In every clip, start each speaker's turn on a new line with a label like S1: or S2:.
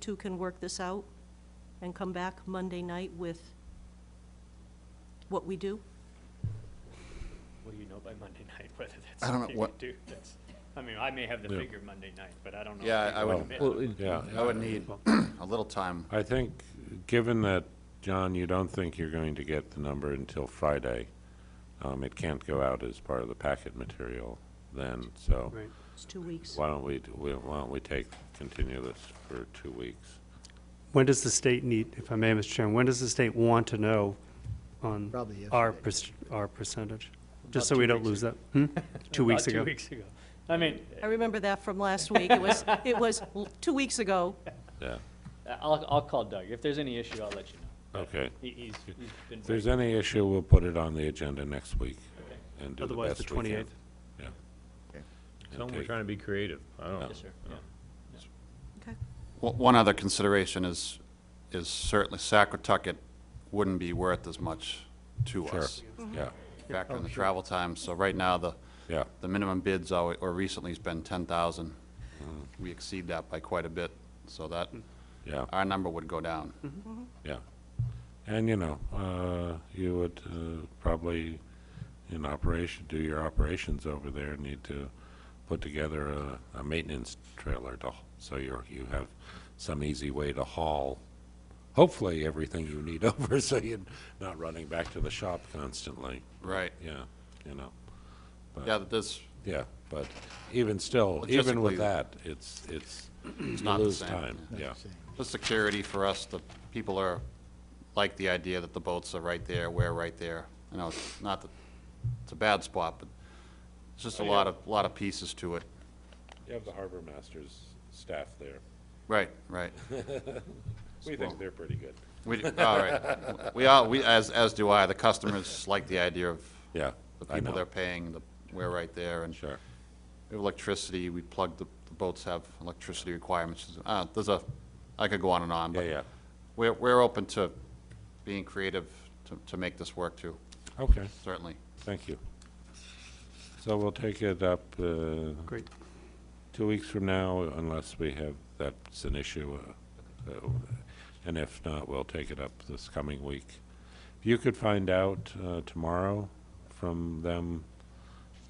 S1: two can work this out and come back Monday night with what we do?
S2: Will you know by Monday night whether that's
S3: I don't know
S2: something we
S3: what-
S2: do? That's- I mean, I may have the
S4: Yeah.
S2: figure Monday night, but I don't know. if
S3: Yeah,
S2: we
S3: I
S2: can
S3: would-
S2: commit.
S4: Well, it-
S3: Yeah, I would need a little time.
S4: Oh, I think, given that, John, you don't think you're going to get the number until Friday, um, it can't go out as part of the packet material then, so
S5: Right.
S1: It's two weeks.
S4: why don't we, do- we- why don't we take, continue this for two weeks?
S5: When does the state need, if I may, Mr. Chairman, when does the state want to know on
S6: Probably
S5: our,
S6: yesterday.
S5: perc- our percentage? Just
S2: About
S5: so we
S2: two
S5: don't
S2: weeks
S5: lose that. Hmm? Two
S2: About
S5: weeks ago.
S2: Two weeks ago. I mean,
S1: I remember that from last week. It was, it was l- two weeks ago.
S4: Yeah,
S2: I'll, I'll call Doug. If there's any issue, I'll let you know.
S4: okay.
S2: He, he's, he's been.
S4: If there's any issue, we'll put it on the agenda next week and do the
S5: Otherwise, the
S4: best we can.
S5: 28th.
S4: Yeah.
S3: Okay.
S4: And
S7: Tell 'em we're
S4: take-
S7: trying to be creative. I don't know.
S2: Yes, sir, yeah.
S1: Okay.
S3: O- One other consideration is, is certainly Sacotucket wouldn't be worth as much to
S4: Sure,
S3: us.
S4: yeah,
S3: Factor in the travel time, so right now, the,
S4: yeah.
S3: the minimum bids, alwa- or recently, has been ten thousand. We exceed that by quite a bit, so that,
S4: Yeah,
S3: our number would go down.
S4: yeah. And, you know, uh, you would uh, probably, in operation, do your operations over there, need to put together a, a maintenance trailer to, h- so you're, you have some easy way to haul, hopefully, everything you need over, so you're not running back to the shop constantly.
S3: Right,
S4: Yeah, you know,
S3: yeah, this,
S4: yeah, but even still, even
S3: Logistically,
S4: with that, it's, it's, you
S3: not the
S4: lose
S3: same,
S4: time, yeah.
S3: the security for us, the people are, like the idea that the boats are right there, we're right there. You know, it's not that, it's a bad spot, but it's
S4: Oh,
S3: just a lot of, lot of pieces to it.
S4: You have the harbor master's staff there.
S3: Right, right.
S4: We think they're pretty good.
S3: We, all right. We all, we, as, as do I, the customers like the idea of
S4: Yeah,
S3: the
S4: I
S3: people they're
S4: know,
S3: paying, the, we're right there, and
S4: sure.
S3: we have electricity, we plug, the the boats have electricity requirements. Uh, there's a, I could go on and on,
S4: Yeah,
S3: but
S4: yeah,
S3: we're, we're open to being creative to, to make this work too,
S4: okay,
S3: certainly.
S4: thank you. So we'll take it up uh,
S5: Great.
S4: two weeks from now, unless we have, that's an issue. uh, uh, And if not, we'll take it up this coming week. If you could find out uh, tomorrow from them,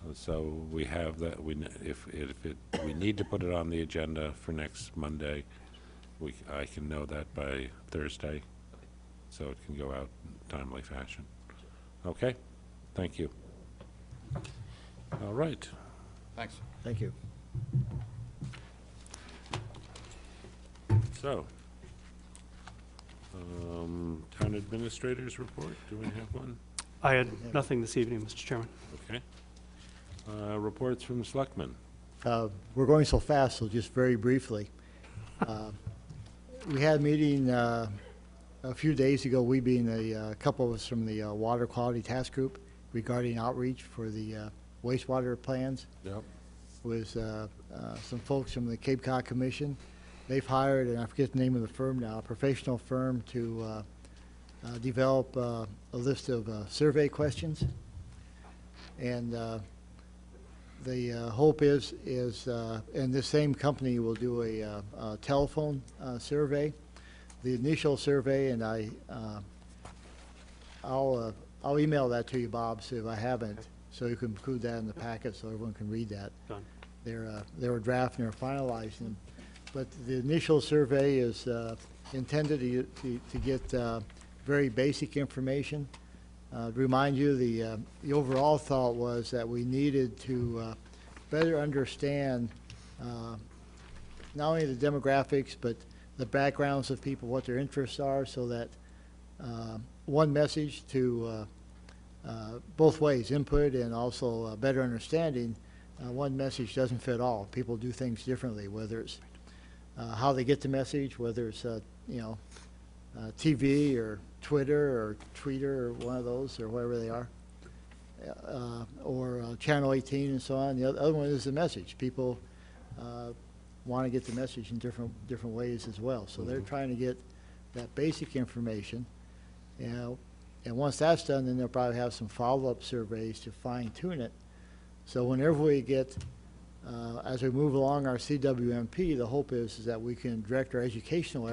S4: uh, so we have that, we, kn- if, if it, we need to put it on the agenda for next Monday, we, c- I can know that by Thursday, so it can go out in timely fashion. Okay? Thank you. All right.
S3: Thanks.
S6: Thank you.
S4: So, um, town administrators report, do we have one?
S5: I had nothing this evening, Mr. Chairman.
S4: Okay. Uh, reports from selectmen.
S6: Uh, We're going so fast, so just very briefly. Uh, We had a meeting uh, a few days ago, we being a uh, couple of us from the uh, Water Quality Task Group regarding outreach for the uh, wastewater plans
S4: Yep.
S6: with uh, uh, some folks from the Cape Cod Commission. They've hired, and I forget the name of the firm now, a professional firm to uh, uh, develop uh, a list of uh, survey questions. And uh, the uh, hope is, is, uh, and this same company will do a uh, a telephone uh, survey. The initial survey, and I, uh, I'll, uh, I'll email that to you, Bob, so if I haven't, so you can include that in the packet, so everyone can read that
S5: Done.
S6: they're, uh, they were drafting or finalizing them. But the initial survey is uh, intended to, to- to get uh, very basic information. Uh, to Remind you, the, uh, the overall thought was that we needed to uh, better understand uh, not only the demographics, but the backgrounds of people, what their interests are, so that uh, one message to uh, uh, both ways, input and also uh, better understanding, uh, one message doesn't fit all. People do things differently, whether it's uh, how they get the message, whether it's, uh, you know, uh, TV or Twitter or Tweeter or one of those or wherever they are, uh, or uh, Channel 18 and so on. The other other one is the message. People uh, want to get the message in different, different ways as well. So they're trying to get that basic information. You know, and once that's done, then they'll probably have some follow-up surveys to fine tune it. So whenever we get uh, as we move along our CWMP, the hope is, is that we can direct our educational